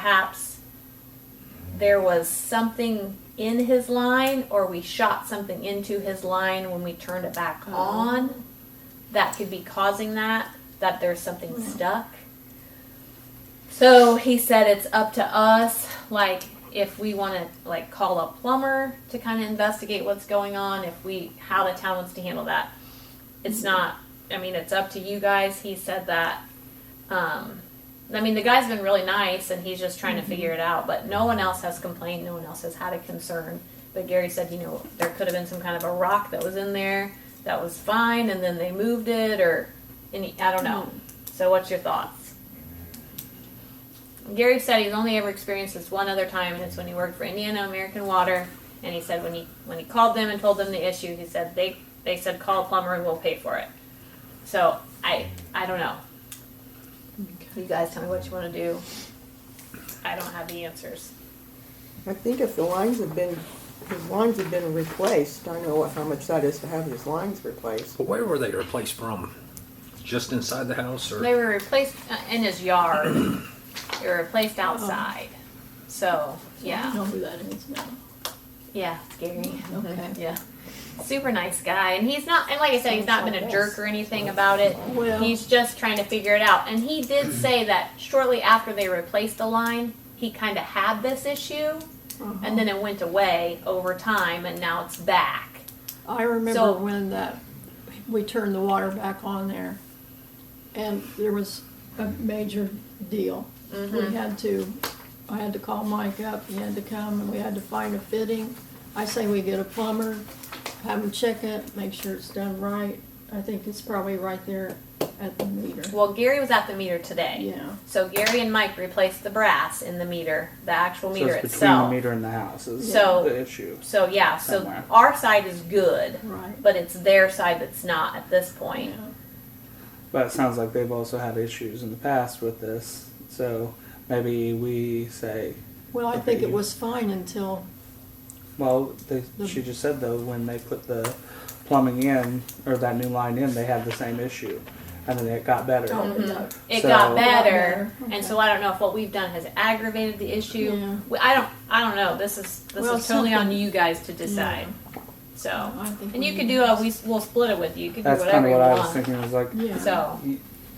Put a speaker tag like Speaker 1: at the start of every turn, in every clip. Speaker 1: perhaps there was something in his line or we shot something into his line when we turned it back
Speaker 2: Oh.
Speaker 1: on that could be causing that that there's something stuck so he said it's up to us like if we want to like call a plumber to kind of investigate what's going on if we how the town wants to handle that it's not i mean it's up to you guys he said that um, I mean, the guy's been really nice and he's just trying to figure it out, but no one else has complained. No one else has had a concern. But Gary said, you know, there could have been some kind of a rock that was in there that was fine and then they moved it or any, I don't know. So, what's your thoughts? Gary said he's only ever experienced this one other time and it's when he worked for Indiana American Water. And he said when he when he called them and told them the issue, he said they they said call a plumber and we'll pay for it. So I I don't know. You guys tell me what you want to do. I don't have the answers.
Speaker 3: I think if the lines have been, his lines have been replaced, I know how much that is to have his lines replaced.
Speaker 4: But where were they replaced from? Just inside the house, or
Speaker 1: They were replaced uh, in his yard. they were replaced outside. So
Speaker 2: I
Speaker 1: yeah,
Speaker 2: know who that is now.
Speaker 1: yeah, Gary.
Speaker 2: Okay.
Speaker 1: Yeah, super nice guy, and he's not. And like I said, he's not been a jerk or anything about it.
Speaker 2: Well,
Speaker 1: He's just trying to figure it out. And he did say that shortly after they replaced the line, he kind of had this issue, and then it went away over time, and now it's back.
Speaker 2: I remember
Speaker 1: So-
Speaker 2: when that we turned the water back on there, and there was a major deal.
Speaker 1: Mm-hmm.
Speaker 2: We had to, I had to call Mike up. He had to come, and we had to find a fitting. I say we get a plumber, have him check it, make sure it's done right. I think it's probably right there at the meter.
Speaker 1: Well, Gary was at the meter today.
Speaker 2: Yeah.
Speaker 1: So Gary and Mike replaced the brass in the meter, the actual
Speaker 5: So
Speaker 1: meter
Speaker 5: it's between the
Speaker 1: itself.
Speaker 5: meter and the house is
Speaker 1: So-
Speaker 5: the issue.
Speaker 1: So yeah, so
Speaker 5: Somewhere.
Speaker 1: our side is good,
Speaker 2: Right.
Speaker 1: but it's their side that's not at this point.
Speaker 2: Yeah.
Speaker 5: But it sounds like they've also had issues in the past with this. So maybe we say,
Speaker 2: Well, I
Speaker 5: Okay,
Speaker 2: think it
Speaker 5: you-
Speaker 2: was fine until
Speaker 5: well, they,
Speaker 2: The-
Speaker 5: she just said though when they put the plumbing in or that new line in, they had the same issue, and then it got better.
Speaker 2: Oh, no.
Speaker 1: It
Speaker 5: So-
Speaker 1: got
Speaker 2: Got
Speaker 1: better,
Speaker 2: better,
Speaker 1: and so I don't know if what we've done has aggravated the issue.
Speaker 2: Yeah.
Speaker 1: We- I don't, I don't know. This is this
Speaker 2: Well,
Speaker 1: is totally on
Speaker 2: something-
Speaker 1: you guys to decide. So,
Speaker 2: I think
Speaker 1: and
Speaker 2: we
Speaker 1: you could
Speaker 2: need
Speaker 1: do a
Speaker 2: to-
Speaker 1: we we'll split it with you. You could
Speaker 5: That's
Speaker 1: do
Speaker 5: kind
Speaker 1: whatever
Speaker 5: of what
Speaker 1: you
Speaker 5: I was
Speaker 1: want.
Speaker 5: thinking. Was like,
Speaker 2: Yeah.
Speaker 1: So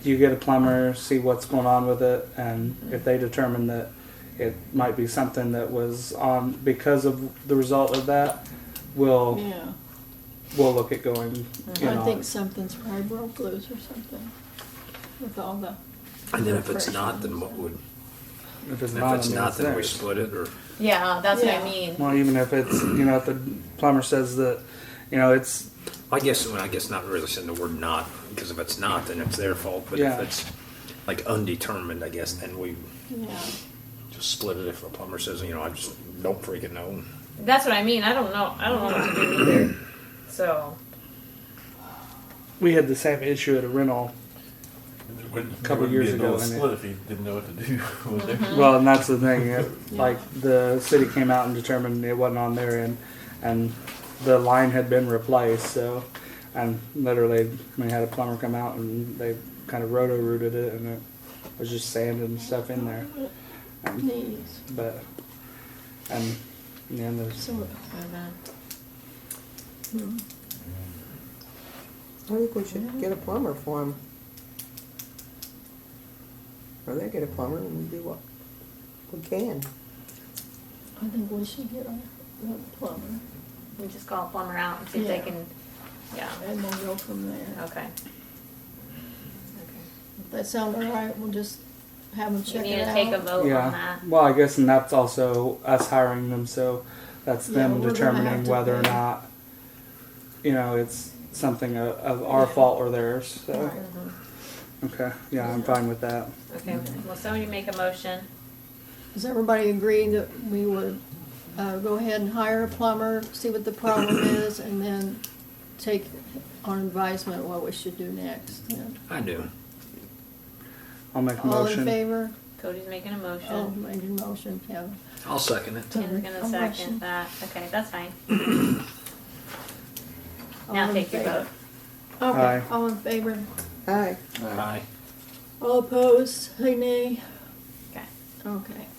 Speaker 5: you get a plumber, see what's going on with it, and if they determine that it might be something that was on because of the result of that, we'll
Speaker 2: yeah,
Speaker 5: we'll look at going. You know,
Speaker 2: I think something's probably broke loose or something with all the.
Speaker 4: and then if it's not, then what would?
Speaker 5: if it's
Speaker 4: If
Speaker 5: not,
Speaker 4: it's
Speaker 5: I mean,
Speaker 4: not,
Speaker 5: it's
Speaker 4: then we
Speaker 5: theirs.
Speaker 4: split it, or
Speaker 1: yeah, that's what
Speaker 2: Yeah.
Speaker 1: I mean.
Speaker 5: Well, even if it's you know if the plumber says that, you know it's
Speaker 4: I guess well, I guess not really saying the word not because if it's not, then it's their fault. But
Speaker 5: Yeah.
Speaker 4: if it's like undetermined, I guess then we
Speaker 2: Yeah,
Speaker 4: just split it. If a plumber says, you know, I just don't freaking know.
Speaker 1: That's what I mean. I don't know. I don't know what to do either. So
Speaker 5: we had the same issue at a rental.
Speaker 6: There wouldn't- there
Speaker 5: Couple
Speaker 6: wouldn't
Speaker 5: years
Speaker 6: be a
Speaker 5: ago,
Speaker 6: double
Speaker 5: and it-
Speaker 6: Split if he didn't know what to do. would there?
Speaker 2: Mm-hmm.
Speaker 5: Well, and that's the thing. It, Like the city came out and determined it wasn't on their end, and the line had been replaced. So, and literally, we had a plumber come out and they kind of roto rooted it, and it was just sand and stuff in there. And,
Speaker 2: knees.
Speaker 5: but and yeah, there's
Speaker 2: So, Hmm.
Speaker 3: I think we should get a plumber for him. Or they get a plumber and we do what we can.
Speaker 2: I think we should get a a plumber
Speaker 1: we just call a plumber out and see if
Speaker 2: Yeah.
Speaker 1: they can. Yeah.
Speaker 2: and we'll go from there.
Speaker 1: Okay.
Speaker 2: If that sounds all right, we'll just have them
Speaker 1: You
Speaker 2: check
Speaker 1: need
Speaker 2: it
Speaker 1: to take a
Speaker 2: out.
Speaker 1: vote Oh, on
Speaker 5: yeah.
Speaker 1: that.
Speaker 5: Well, I guess, and that's also us hiring them. So that's
Speaker 2: Yeah,
Speaker 5: them
Speaker 2: we're gonna have
Speaker 5: determining
Speaker 2: to
Speaker 5: whether or
Speaker 2: pay.
Speaker 5: not you know it's something of, of our
Speaker 2: Yeah.
Speaker 5: fault or theirs. So.
Speaker 2: Right.
Speaker 5: Okay, yeah, I'm
Speaker 2: Yeah.
Speaker 5: fine with that.
Speaker 1: Okay, well, somebody make a motion.
Speaker 2: Does everybody agree that we would, uh, go ahead and hire a plumber, see what the problem is, and then take our advisement what we should do next? then?
Speaker 4: I do.
Speaker 5: I'll make a
Speaker 2: All in
Speaker 5: motion.
Speaker 2: favor?
Speaker 1: Cody's making a
Speaker 2: Oh,
Speaker 1: motion.
Speaker 2: made your motion, Kevin.
Speaker 4: I'll second it.
Speaker 1: Tim's gonna
Speaker 2: I'll
Speaker 1: second
Speaker 2: motion.
Speaker 1: that. Okay, that's fine.
Speaker 2: All
Speaker 1: Now
Speaker 2: in
Speaker 1: take your
Speaker 2: favor.
Speaker 1: vote.
Speaker 2: Okay,
Speaker 5: Aye.
Speaker 2: all in favor?
Speaker 3: Aye.
Speaker 4: Aye.
Speaker 2: All opposed, say nay.
Speaker 1: Okay.
Speaker 2: Okay.